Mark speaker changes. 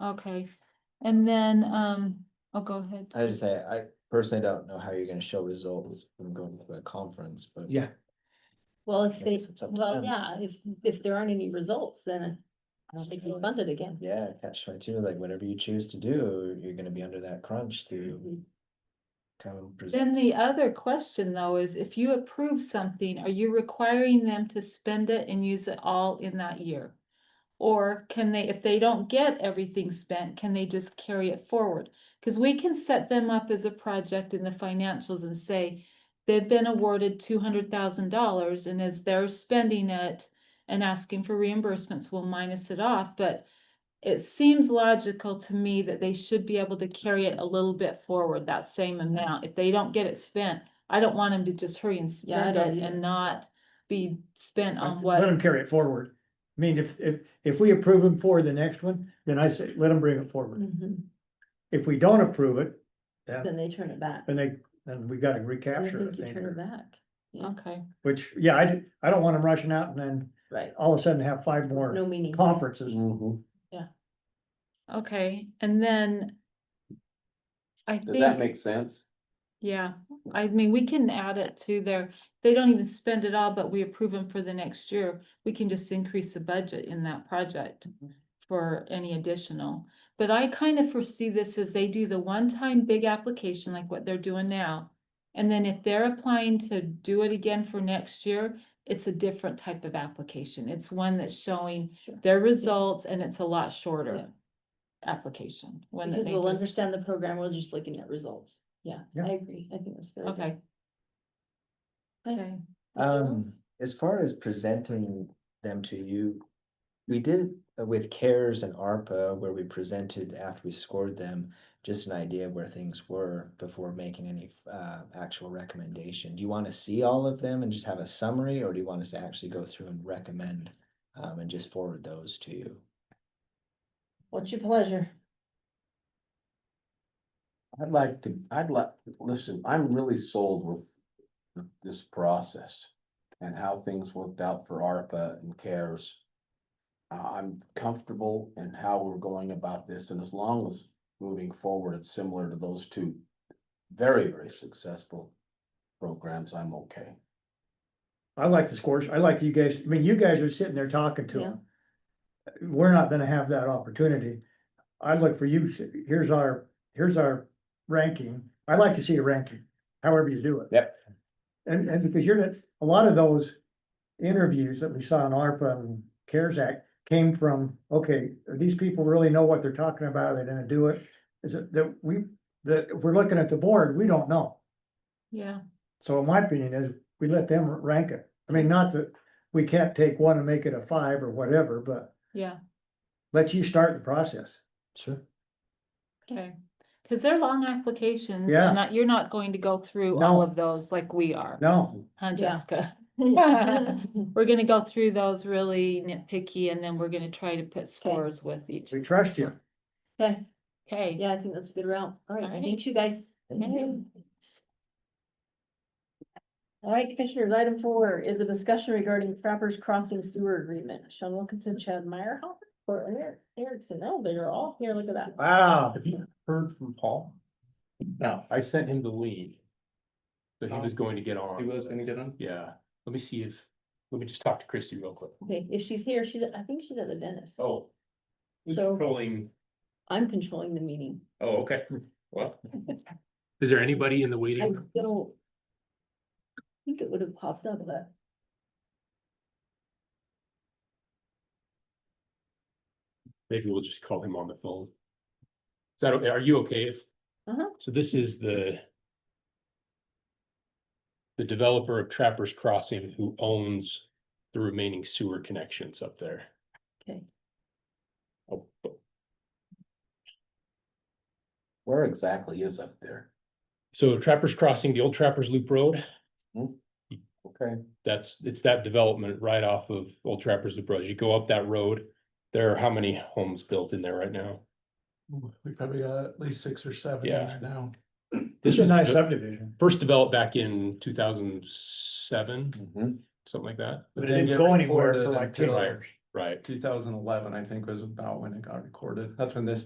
Speaker 1: Okay, and then, um, oh, go ahead.
Speaker 2: I just say, I personally don't know how you're gonna show results from going to a conference, but.
Speaker 3: Yeah,
Speaker 4: Well, if they,
Speaker 2: Yes, it's up to
Speaker 4: well,
Speaker 2: them.
Speaker 4: yeah, if, if there aren't any results, then it's like
Speaker 2: Absolutely.
Speaker 4: funded again.
Speaker 2: Yeah, catch twenty two, like whatever you choose to do, you're gonna be under that crunch to
Speaker 4: Mhm.
Speaker 2: come and
Speaker 1: Mm-hmm. Then
Speaker 2: present.
Speaker 1: the other question though is if you approve something, are you requiring them to spend it and use it all in that year? Or can they, if they don't get everything spent, can they just carry it forward? Cause we can set them up as a project in the financials and say. They've been awarded two hundred thousand dollars and as they're spending it and asking for reimbursements, we'll minus it off, but. It seems logical to me that they should be able to carry it a little bit forward, that same amount. If they don't get it spent, I don't want them to just hurry and
Speaker 4: Yeah, I
Speaker 1: spend
Speaker 4: don't
Speaker 1: it
Speaker 4: either.
Speaker 1: and not be spent on
Speaker 3: let
Speaker 1: what.
Speaker 3: them carry it forward. I mean, if, if, if we approve them for the next one, then I say, let them bring it forward.
Speaker 4: Mhm.
Speaker 3: If we don't approve it, then,
Speaker 4: Then they turn it back.
Speaker 3: then they, then we gotta
Speaker 4: I
Speaker 3: recapture, I
Speaker 4: think you
Speaker 3: think,
Speaker 4: turn it
Speaker 3: or-
Speaker 4: back,
Speaker 1: Okay,
Speaker 3: which, yeah, I, did- I don't want them rushing out and then
Speaker 4: right?
Speaker 3: all of a sudden have five
Speaker 4: No
Speaker 3: more
Speaker 4: meaning.
Speaker 3: conferences.
Speaker 2: Mhm.
Speaker 1: okay, and then. I
Speaker 5: Does that
Speaker 1: think,
Speaker 5: make sense?
Speaker 1: yeah, I mean, we can add it to their, they don't even spend it all, but we approve them for the next year. We can just increase the budget in that project
Speaker 4: Mm-hmm.
Speaker 1: for any additional. But I kind of foresee this as they do the one-time big application like what they're doing now. And then if they're applying to do it again for next year, it's a different type of application. It's one that's showing
Speaker 4: Sure.
Speaker 1: their results and it's a lot shorter
Speaker 4: Yeah.
Speaker 1: application. one that
Speaker 4: Because
Speaker 1: they
Speaker 4: we'll
Speaker 1: just-
Speaker 4: understand the program, we're just looking at results. Yeah,
Speaker 3: Yeah.
Speaker 4: I agree. I think that's very good.
Speaker 1: Okay. Okay,
Speaker 4: Anything else?
Speaker 2: Um, as far as presenting them to you, we did uh, with CARES and ARPA where we presented after we scored them. Just an idea of where things were before making any uh actual recommendation. Do you wanna see all of them and just have a summary, or do you want us to actually go through and recommend? Um, and just forward those to you?
Speaker 4: What's your pleasure?
Speaker 5: I'd like to, I'd like, listen, I'm really sold with th- this process and how things worked out for ARPA and CARES. Uh, I'm comfortable in how we're going about this, and as long as moving forward, it's similar to those two very, very successful programs, I'm okay.
Speaker 3: I like the scores, I like you guys, I mean, you guys are sitting there talking to them. We're not gonna have that opportunity. I look for you, here's our, here's our ranking, I'd like to see a ranking, however you do it.
Speaker 5: Yep.
Speaker 3: And, and because you're, not- a lot of those interviews that we saw in ARPA and CARES Act came from, okay, these people really know what they're talking about, they're gonna do it. Is it that we, that if we're looking at the board, we don't know.
Speaker 1: yeah,
Speaker 3: So my opinion is, we let them rank it. I mean, not that we can't take one and make it a five or whatever, but
Speaker 1: yeah,
Speaker 3: let you start the process.
Speaker 2: Sure.
Speaker 1: okay. Cause they're long applications.
Speaker 3: Yeah.
Speaker 1: and Not, you're not going to go through all
Speaker 3: No.
Speaker 1: of those like we are,
Speaker 3: No,
Speaker 1: huh,
Speaker 4: Yeah.
Speaker 1: Jessica?
Speaker 4: Yeah.
Speaker 1: We're gonna go through those really nitpicky and then we're gonna try to put scores with each.
Speaker 3: we trust you.
Speaker 4: Okay,
Speaker 1: Okay.
Speaker 4: yeah, I think that's a good route. All right, I
Speaker 1: Alright.
Speaker 4: need you guys.
Speaker 1: Okay.
Speaker 4: All right, commissioners, item four is a discussion regarding Trappers Crossing Sewer Agreement. Sean Wilkinson, Chad Meyer, or Eric Erickson. Oh, they're all here. Look at that.
Speaker 3: Wow.
Speaker 6: Have you heard from Paul? No, I sent him the lead. So he was going to get on.
Speaker 7: He was gonna get on?
Speaker 6: Yeah, let me see if, let me just talk to Christy real quick.
Speaker 4: Okay, if she's here, she's, I think she's at the dentist.
Speaker 6: Oh. Who's
Speaker 4: So-
Speaker 6: controlling?
Speaker 4: I'm controlling the meeting.
Speaker 6: Oh, okay, well. Is there anybody in the
Speaker 4: I
Speaker 6: waiting? room?
Speaker 4: don't. Think it would have popped up, but.
Speaker 6: Maybe we'll just call him on the phone. Is that, okay? are you okay if?
Speaker 4: Uh-huh.
Speaker 6: So this is the. The developer of Trappers Crossing who owns the remaining sewer connections up there.
Speaker 4: Okay.
Speaker 6: Oh,
Speaker 5: Where exactly is up there?
Speaker 6: So Trappers Crossing, the old Trappers Loop Road,
Speaker 5: Okay,
Speaker 6: that's, it's that development right off of Old Trappers Loop Road. You go up that road. There are how many homes built in there right now?
Speaker 7: We probably got at least six or seven in
Speaker 6: Yeah.
Speaker 7: there now.
Speaker 3: This
Speaker 6: This
Speaker 3: is a
Speaker 6: was
Speaker 3: nice
Speaker 6: de-
Speaker 3: subdivision.
Speaker 6: first developed back in two thousand seven,
Speaker 5: mhm.
Speaker 6: something like that,
Speaker 3: It didn't go anywhere for like ten
Speaker 6: until-
Speaker 3: years.
Speaker 6: right?
Speaker 7: Two thousand eleven, I think was about when it got recorded. That's when this